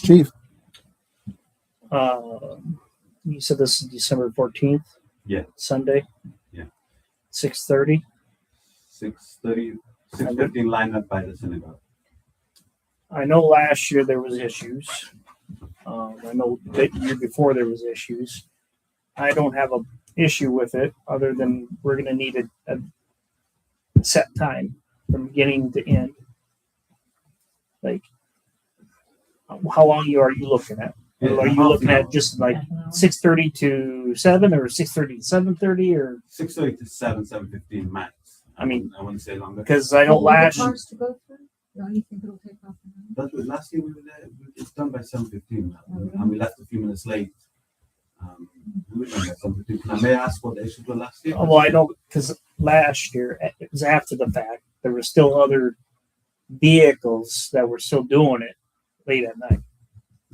Chief, Uh, you said this is December fourteenth. Yeah. Sunday. Yeah. Six thirty. Six thirty, six fifteen line up by the synagogue. I know last year there was issues. Um, I know that year before there was issues. I don't have a issue with it, other than we're going to need a, a set time from beginning to end. Like, how long you are you looking at? Are you looking at just like six thirty to seven, or six thirty to seven thirty, or Six thirty to seven, seven fifteen max. I mean- I wouldn't say longer. because I don't Only the last. Cars to go through? No, you think it'll take off? an hour? But last year we were there, it's done by seven fifteen now, Oh, really? and we left a few minutes late. Um, we were done by 7:15. Now, may I ask what the issues were last year? Well, I don't because last year it was after the fact. There were still other vehicles that were still doing it late at night.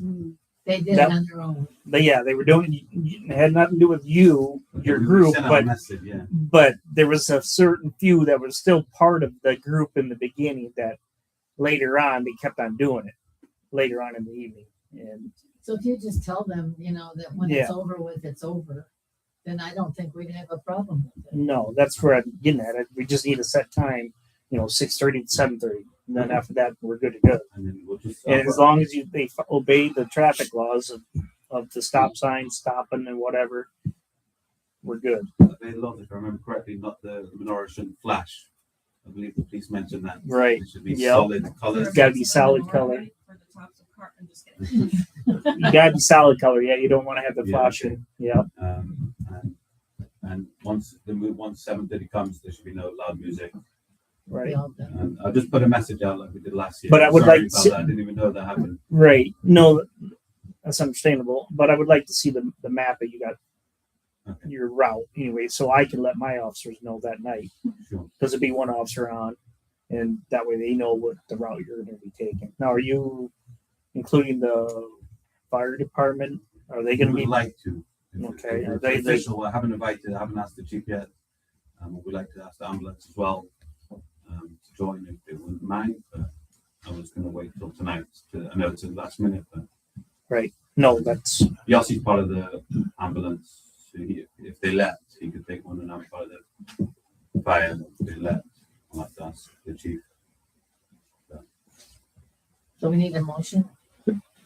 Mm. They did it That- on their own. But yeah, they were doing. It had nothing to do with you, your We group, sent out a but Message, yeah. but there was a certain few that were still part of the group in the beginning that later on they kept on doing it later on in the evening. And So if you just tell them, you know, that when it's Yeah. over with, it's over, then I don't think we'd have a problem with it. no, that's where I'm getting at. We just need a set time, you know, six thirty to seven thirty, and then after that we're good to go. And then we'll just. uh, And as long as you they f- obey the traffic laws of, of the stop sign, stopping and whatever, we're good. They love, if I remember correctly, not the menorah shouldn't flash. I believe the police mentioned that. Right. It should be Yep. solid colors. Gotta be solid color. For the tops of car, I'm just kidding. You gotta be solid color. Yeah, you don't want to have the Yeah, flashing. Yeah. Um, and, and once the move, once seven thirty comes, there should be no loud music. We Right. all done. And I'll just put a message out like we did last year. But I would Sorry like about to- that. I didn't even know that happened. Right. No, that's understandable. But I would like to see the the map that you got Okay. your route anyway, so I can let my officers know that night. Sure. Because it'd be one officer on, and that way they know what the route you're going to be taking. Now, are you including the fire department? Are they going to We be would like to. If- if Okay, it's they- they- Official, I haven't invited, I haven't asked the chief yet. Um, we'd like to ask the ambulance as well, um, to join if they wouldn't mind, but I was gonna wait till tonight to, I know it's the last minute, but No, that's Yossi's part of the ambulance. So he, if they left, he could take one and I'm part of the fire. If they left, I'll have to ask the chief. So we need a motion.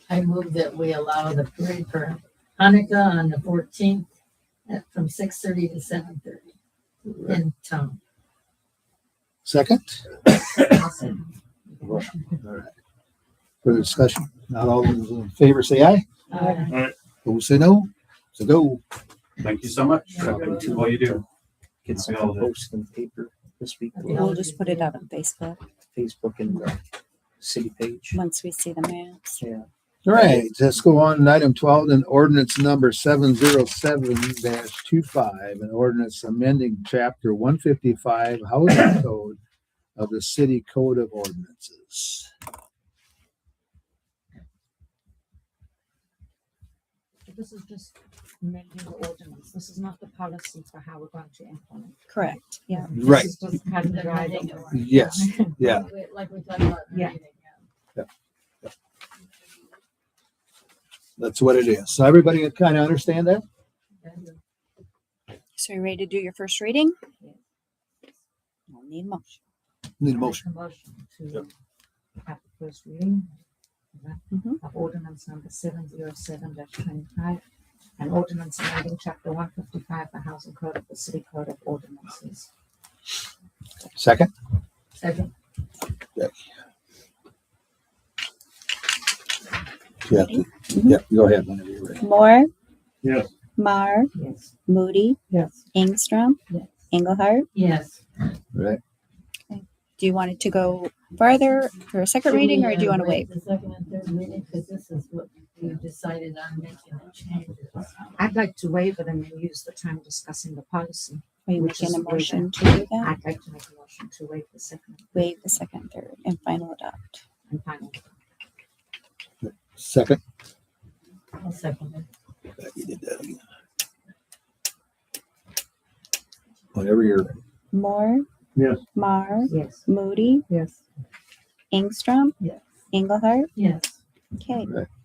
I move that we allow the parade for Hanukkah on the fourteenth at from six thirty to seven thirty in town. second. Awesome. Further discussion? Not all those in favor say aye. Uh, Those say no. So go. Thank you so much. You're welcome. Thank you for all you do. get Yeah, some we all did. posts in the paper this week, Yeah. with We'll just put it out on Facebook Facebook and the city page. once we see the maps. Yeah. All right, let's go on to item twelve, an ordinance number seven zero seven 25 an ordinance amending chapter one fifty-five housing code of the city code of ordinances. This is just amending the ordinance. This is not the policy for how we're going to implement. Correct. Yeah. Right, This is just kind of guiding the way. yes, yeah. we- Like we talked about. in the Yeah. meeting, That's what it is. So everybody kind of understand that? yeah. So you ready to do your first reading? We'll need a motion. Need a motion. Make a Motion to have the first reading. of that, Mhm. Of ordinance number seven zero seven twenty-five. An ordinance amending chapter one fifty-five, the housing code of the city code of ordinances. Second? Second, Yeah, yeah, go ahead. whenever you're ready. Moore. Yes. Mar, Yes. Moody, Yes. Ingstrom, Yes. Engelhardt. yes. Right, Do you want it to go farther for a second reading or do you uh, want to wait? The second and third reading, because this is what we decided on making the changes. I'd like to waive it and then use the time discussing the policy. Are you Which making a is motion to do that? I'd like to make a motion to waive the second Waive the second, third, and final adopt. and final. second. I'll second it. You did that again. Whenever you're ready. Moore. Yes. Mar, Yes. Moody, Yes. Ingstrom, Yes. Engelhardt. Yes, Okay. Right.